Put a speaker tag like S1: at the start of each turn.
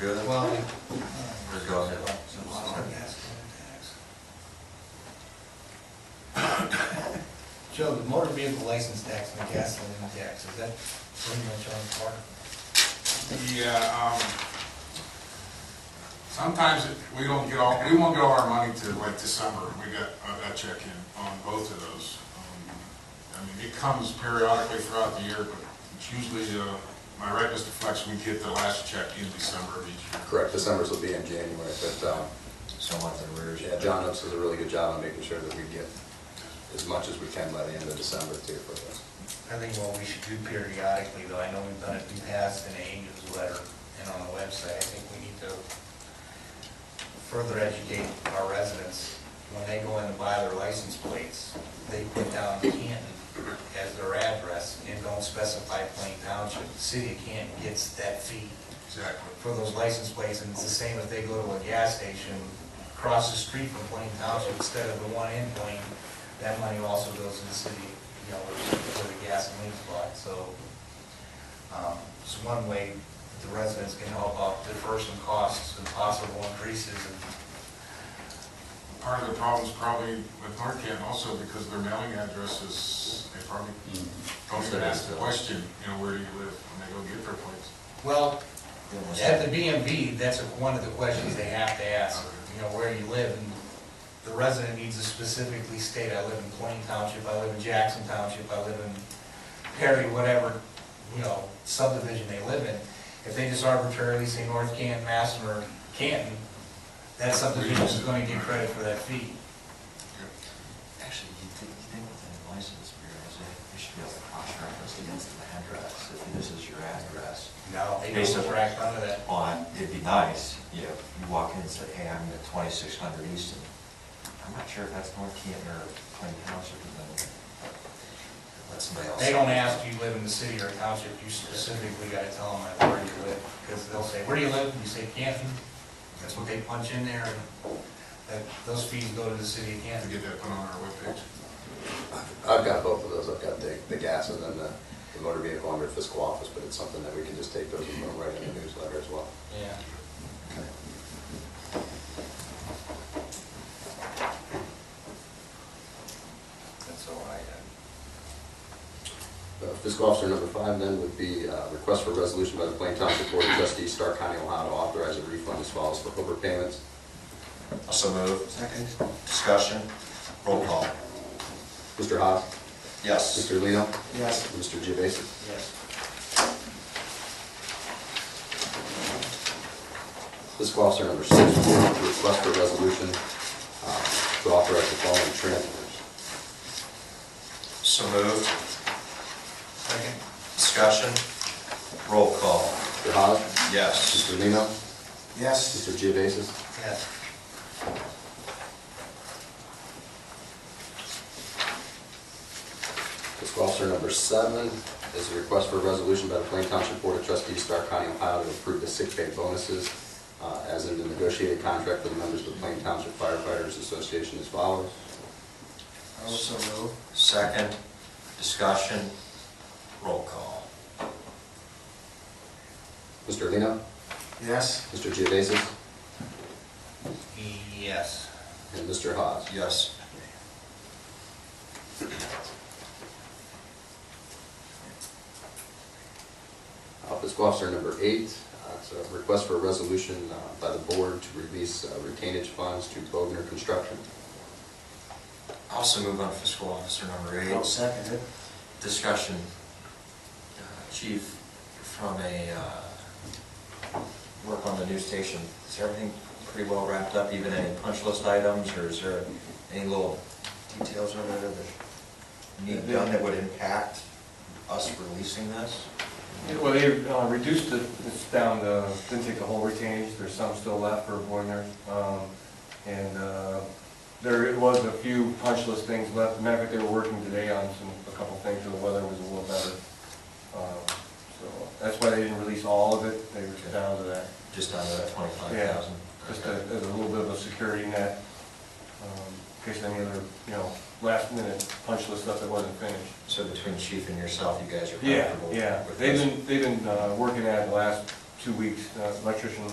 S1: good?
S2: Well,
S1: Or go ahead.
S2: Joe, the motor vehicle license tax and the gasoline tax, is that pretty much on par?
S3: Yeah, um, sometimes it- we don't get all, we won't get all our money to like December, we got, I got check in on both of those. Um, I mean, it comes periodically throughout the year, but it's usually, uh, my right, Mr. Flex, we get the last check in December of each year.
S4: Correct, December's will be in January, but, um,
S1: Somewhat the arrears.
S4: yeah, John Ups does a really good job on making sure that we get as much as we can by the end of December too for this.
S2: I think what we should do periodically, though, I know we've done it in the past in a newsletter and on the website, I think we need to further educate our residents. When they go in to buy their license plates, they put down Canton as their address and don't specify Plain Township. The city of Canton gets that fee
S3: Exactly.
S2: for those license plates, and it's the same if they go to a gas station across the street from Plain Township instead of the one in Plain, that money also goes to the city, you know, where where the gasoline is bought, so, um, it's one way the residents can help out defer some costs and possible increases and
S3: Part of the problem's probably with North Canton also because their mailing address is, they probably don't even ask the question, you know, where do you live when they go get their plates.
S2: Well, at the BMV, that's one of the questions they have to ask, you know, where you live, and the resident needs to specifically state, I live in Plain Township, I live in Jackson Township, I live in Perry, whatever, you know, subdivision they live in. If they just arbitrarily say North Canton, Masson, or Canton, that subdivision is going to get credit for that fee.
S1: Actually, you think, you think within the license bureaus, they they should be able to cross-reference against the address, if this is your address.
S2: No, they don't crack under that.
S1: On, it'd be nice, you know, if you walk in and say, hey, I'm at twenty-six hundred Easton. I'm not sure if that's North Canton or Plain Township, and then let somebody else.
S2: They don't ask you live in the city or township, you specifically gotta tell them like, where you live, because they'll say, where do you live? And you say Canton, that's what they punch in there, and that, those fees go to the city of
S3: To
S2: Canton.
S3: get that put on our webpage.
S4: I've- I've got both of those, I've got the, the gas and then the the motor vehicle under fiscal office, but it's something that we can just take those and put right in the newsletter as well.
S2: Yeah. That's all I had.
S4: Uh, Fiscal officer number five then would be uh, request for resolution by the Plain Township Board of Trustees, Stark County, Ohio, to authorize a refund as follows for overpayments.
S5: So moved. Second. Discussion. Roll call.
S4: Mr. Haas?
S5: Yes.
S4: Mr. Lino?
S5: Yes.
S4: Mr. Gevasis?
S2: Yes.
S4: Fiscal officer number six, board to request for resolution uh, to authorize the following transfers.
S5: So moved.
S2: Second?
S5: Discussion. Roll call.
S4: Mr. Haas?
S5: Yes.
S4: Mr. Lino?
S5: Yes.
S4: Mr. Gevasis?
S2: Yes.
S4: Fiscal officer number seven is a request for a resolution by the Plain Township Board of Trustees, Stark County, Ohio, to approve the sick pay bonuses uh, as in the negotiated contract for the members of the Plain Township Firefighters Association as follows.
S5: So moved. Second. Discussion. Roll call.
S4: Mr. Lino?
S5: Yes.
S4: Mr. Gevasis?
S2: E Yes.
S4: And Mr. Haas.
S5: Yes.
S4: Uh, Fiscal officer number eight, uh, it's a request for a resolution uh, by the board to release uh, retainage funds to Bogner Construction.
S5: Also move on fiscal officer number 8
S1: second it.
S5: Discussion. Uh, Chief, from a, uh, work on the new station, is everything pretty well wrapped up, even any punch list items, or is there any little details over there that need done that would impact us releasing this?
S6: Well, they uh, reduced it, it's down to, didn't take the whole retainage, there's some still left for Boyner. Um, And uh, there was a few punch list things left, matter of fact, they were working today on some, a couple things, so the weather was a little better. Um, So that's why they didn't release all of it, they were down to that.
S5: Just under that twenty-five
S6: Yeah,
S5: thousand?
S6: just a, as a little bit of a security net, um, in case any other, you know, last minute punch list stuff that wasn't finished.
S5: So between chief and yourself, you guys are
S6: Yeah,
S5: comfortable?
S6: yeah,
S5: with
S6: they've
S5: this?
S6: been, they've been uh, working at it the last two weeks, Uh, electrician